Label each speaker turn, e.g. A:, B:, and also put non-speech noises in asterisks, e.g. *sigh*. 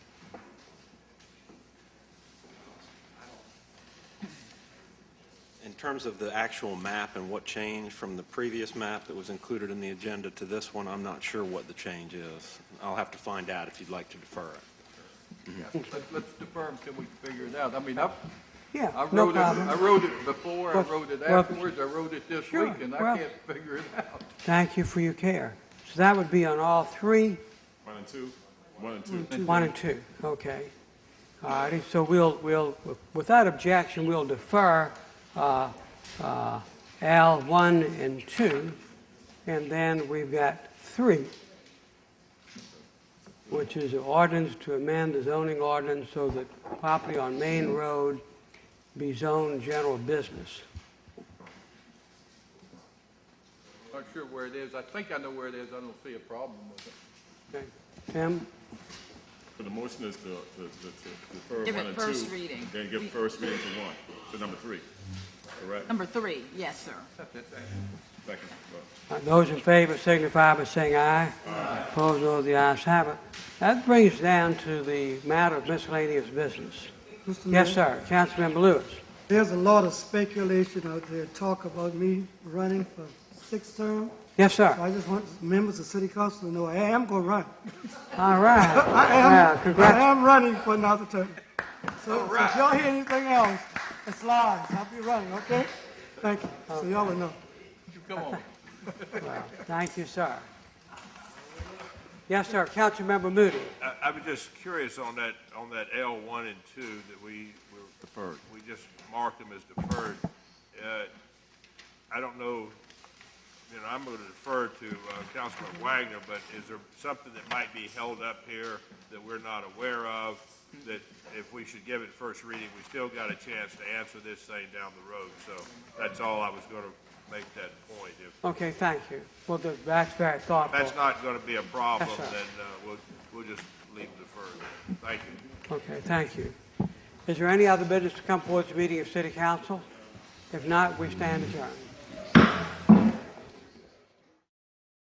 A: terms of the actual map and what changed from the previous map that was included in the agenda to this one, I'm not sure what the change is. I'll have to find out if you'd like to defer it.
B: Let- Let's defer until we figure it out. I mean, I, I
C: Yeah, no
B: wrote it, I
C: problem.
B: wrote it before, I
C: Well,
B: wrote it
C: well,
B: afterwards, I wrote it this
C: sure,
B: week, and I
C: well-
B: can't figure it out.
C: Thank you for your care. So that would be on all three,
D: One and two, one and
E: Hmm.
D: two.
C: one and two, okay. All righty, so we'll, we'll, without objection, we'll defer uh, uh, L one and two, and then we've got three, which is an ordinance to amend the zoning ordinance so that property on Main Road be zoned general business.
B: Not sure where it is. I think I know where it is. I don't see a problem with it.
C: Okay, Tim?
D: So the motion is to, to, to- to defer
E: Give
D: one
E: it
D: and two.
E: first reading.
D: Then give
E: We-
D: first reading to one, to number three, correct?
E: Number three, yes, sir.
D: Second,
C: Uh,
D: well,
C: Those in favor signify by saying aye. Aye. Opposed, no, the ayes have it. That brings us down to the matter of miscellaneous business.
F: Mr. Mayor,
C: Yes, sir, Councilmember Lewis.
F: There's a lot of speculation out there, talk about me running for sixth term.
C: Yes,
F: So
C: sir.
F: I just want members of city council to know I am going to run. *laughs*
C: All right.
F: I
C: Well,
F: am, I
C: congrats.
F: am running for another term. So so if y'all hear anything else, it's lies. I'll be running, okay? Thank you. So y'all will know.
B: You Come on.
C: Well, Thank you, sir. Yes, sir, Councilmember Moody.
G: I, I was just curious on that, on that L one and two that we were. Deferred. We just marked them as deferred. Uh, I don't know, you know, I'm gonna defer to, uh, Councilman Wagner, but is there something that might be held up here that we're not aware of? That if we should give it first reading, we still got a chance to answer this thing down the road, so that's all I was gonna make that point. If
C: Okay, thank you. Well, th- that's very thoughtful.
G: that's not gonna be a problem,
C: Yes,
G: then,
C: sir.
G: uh, we'll, we'll just leave it deferred. Thank you.
C: Okay, thank you. Is there any other business to come forward to the meeting of City Council? If not, we stand adjourned.